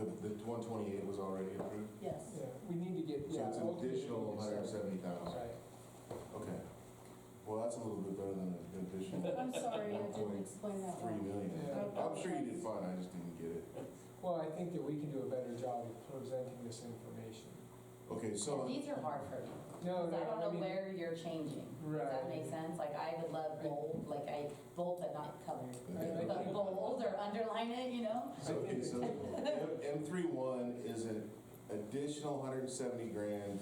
The one twenty-eight was already approved, Yes, Yeah, we need to get, so yeah. it's an ultimately, additional it's- hundred and seventy thousand. Right. Okay. Well, that's a little bit better than an additional I'm sorry, I didn't explain that three well. million. Yeah. I'm sure you did fine, I just didn't get it. Well, I think that we can do a better job of presenting this information. Okay, so. These are hard for me. No, no, Oh, Because I I don't know mean- where you're changing. Does Right. that make sense? Like, I would love bold, like, I, bold but not colored. I- I But think- bold or underline it, you know? So, okay, so M three one is an additional hundred and seventy grand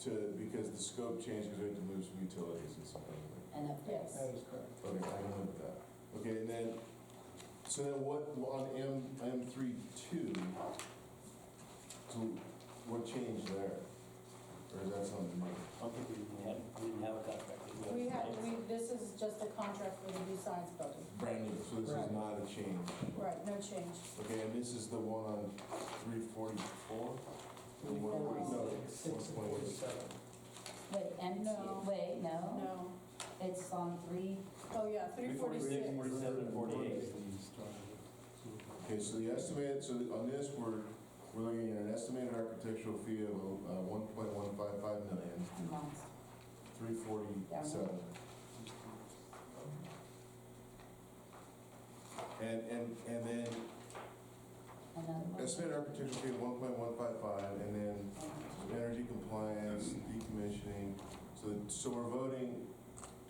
to, because the scope change, because we had to move some utilities and stuff. And up there. That is correct. Okay, I don't know that. Okay, and then, so then what, on M, M three two, so what changed there? Or is that something new? I don't think we even had, we didn't have a contract. did We have, we, this is just a contract for the new science building. Brand new. So this is Right. not a change. Right, no change. Okay, and this is the one on three forty-four? Six and forty-seven. Wait, empty, No. wait, no? No, It's on three, oh yeah, three 346, forty-six. 47, and 48. Okay, so the estimate, so on this, we're, we're looking at an estimated architectural fee of uh, one point one five five million, months. three forty-seven. And, and, and then another one. estimated architectural fee of one point one five five, and then energy compliance, decommissioning. So, so we're voting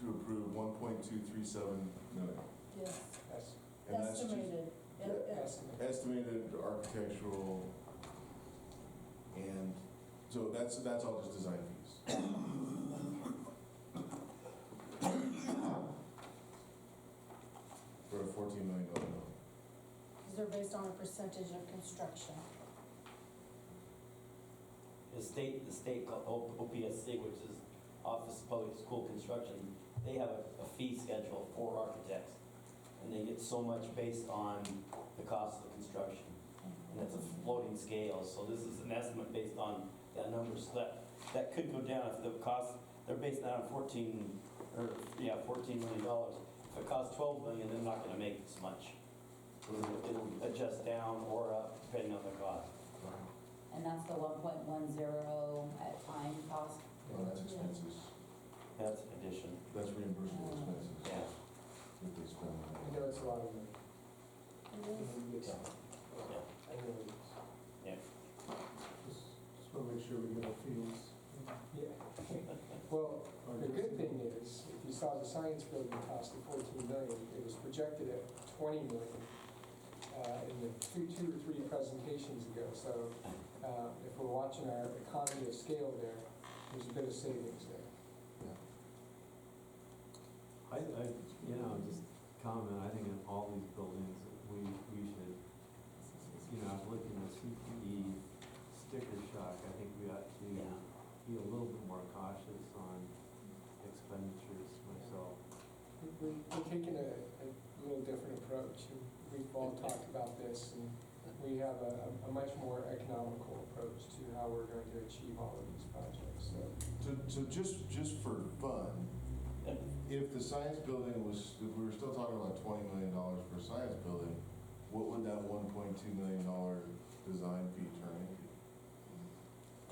to approve one point two three seven million. Yes, That's And that's just- estimated. Yeah, yeah. estimate. estimated architectural, and, so that's, that's all just design fees. For a fourteen million dollar bill. These are based on a percentage of construction. The state, the state, called O- OPSC, which is Office of Public School Construction, they have a a fee schedule for architects. And they get so much based on the cost of the construction. And it's a floating scale, so this is an estimate based on that number. So that, that could go down if the cost, they're based that on 14, or, yeah, 14 million dollars. If it costs 12 million, they're not gonna make this much. It'll it'll adjust down or up depending on the cost. And that's the one point one zero at time cost. Well, that's expenses, That's an addition, that's reimbursable expenses. yeah. that they spend on I that. know it's a lot of money. It I is. know it is. Yeah. Yeah. Just want to make sure we get our fields. Yeah. Well, the good thing is, if you saw the science building cost of 14 million, it was projected at 20 million uh, in the two, two or three presentations ago. So uh, if we're watching our economy of scale there, there's a bit of savings there. I, I, you know, just comment, I think in all these buildings, we, we should, you know, I've looked in the CPE sticker shock, I think we ought Yeah. to be a little bit more cautious on expenditures myself. We- we- We're taking a, a little different approach. and We've all talked about this, and we have a, a much more economical approach to how we're going to achieve all of these projects, so. So, so just, just for fun, if the science building was, if we were still talking about twenty million dollars for a science building, what would that one point two million dollar design fee turn into?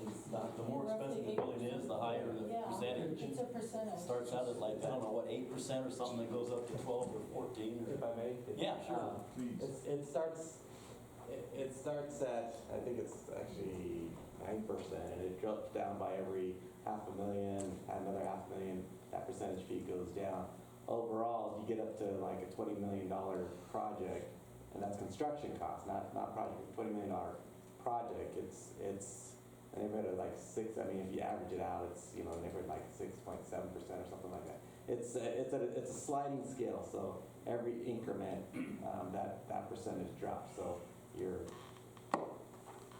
It's not, the more expensive the building is, the higher the Yeah. percentage. It's a percentage. Starts out at like, I don't know, what, eight percent or something that goes up to twelve or fourteen If or. I may? Yeah, sure. Um, Please. it's- It starts, it it starts at, I think it's actually nine percent, and it drops down by every half a million, another half million, that percentage fee goes down. Overall, if you get up to like a twenty million dollar project, and that's construction cost, not, not project, twenty million dollar project, it's, it's a neighborhood of like six, I mean, if you average it out, it's, you know, a neighborhood like six point seven percent or something like that. It's, a- it's a, it's a sliding scale, so every increment, um, that, that percentage drops. So you're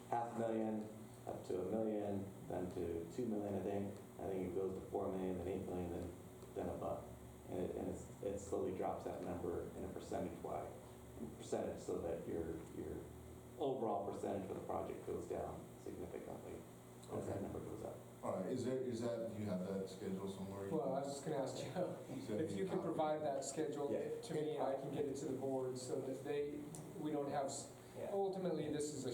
half million up to a million, then to two million, I think. I think it goes to four million, then eight million, then, then above. And it, and it's, it slowly drops that number in a percentage wide, percentage, so that your, your overall percentage for the project goes down significantly as Okay. that number goes up. All right, is there, is that, do you have that schedule somewhere? Well, I was just gonna ask Joe, Send me a if you can copy. provide that schedule Yeah. to me, and I can get it to the board so that they, we don't have, s- ultimately, this is a